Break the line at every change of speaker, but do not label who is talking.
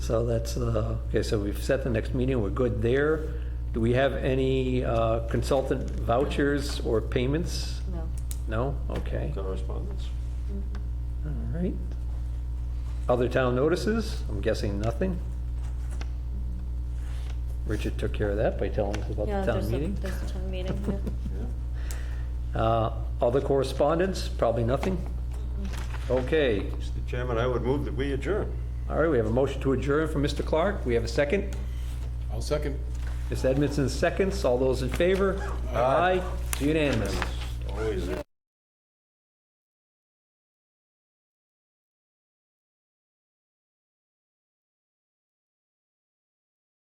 So that's, uh, okay, so we've set the next meeting, we're good there. Do we have any uh, consultant vouchers or payments?
No.
No? Okay, all
Correspondence?
right. Other town notices? I'm guessing nothing. Richard took care of that by telling us about
Yeah,
the town
there's a-
meeting.
There's a town meeting, yeah.
Uh, Other correspondence? Probably nothing. Okay,
Mr. Chairman, I would move that we adjourn.
all right, we have a motion to adjourn from Mr. Clark. We have a second.
I'll second.
Ms. Edmondson seconds. All those in favor? Aye. It's Unanimous.
Always.